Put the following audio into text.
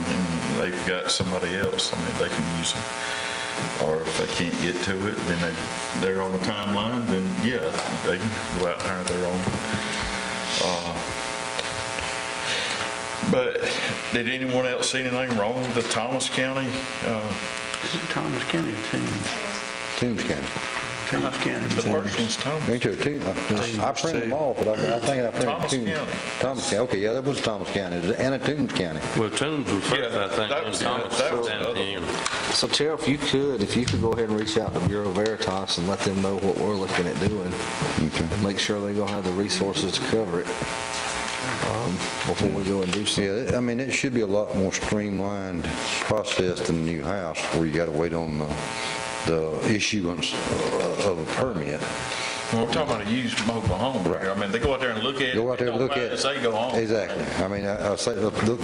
they've got somebody else, I mean, they can use them. Or if they can't get to it, then they, they're on the timeline, then yeah, they can go out and hire their own. Uh, But did anyone else see anything wrong with the Thomas County? uh, Is it Thomas County or Toombs? Toombs County. Thomas The County. Perkins Thomas? Me too, Toombs. I- I printed them all, but I I think I printed Thomas Toombs. County. Thomas County, okay, yeah, that was Thomas County, and a Toombs County. Well, Toombs was first, Yeah, I think, that and was the- Thomas that was down the at other the end. So Terrell, if you could, if you could go ahead and reach out to Bureau Veritas and let them know what we're looking at doing, and make sure they're gonna have the resources to cover it um, before we go and do something. Yeah, it- I mean, it should be a lot more streamlined process than the new house, where you gotta wait on the, the issuance of- of a permit. We're talking about a used mobile home here. I mean, they go out there and look at it. Go out there and They don't look buy at. They go home. Exactly. I mean, I I say, the- the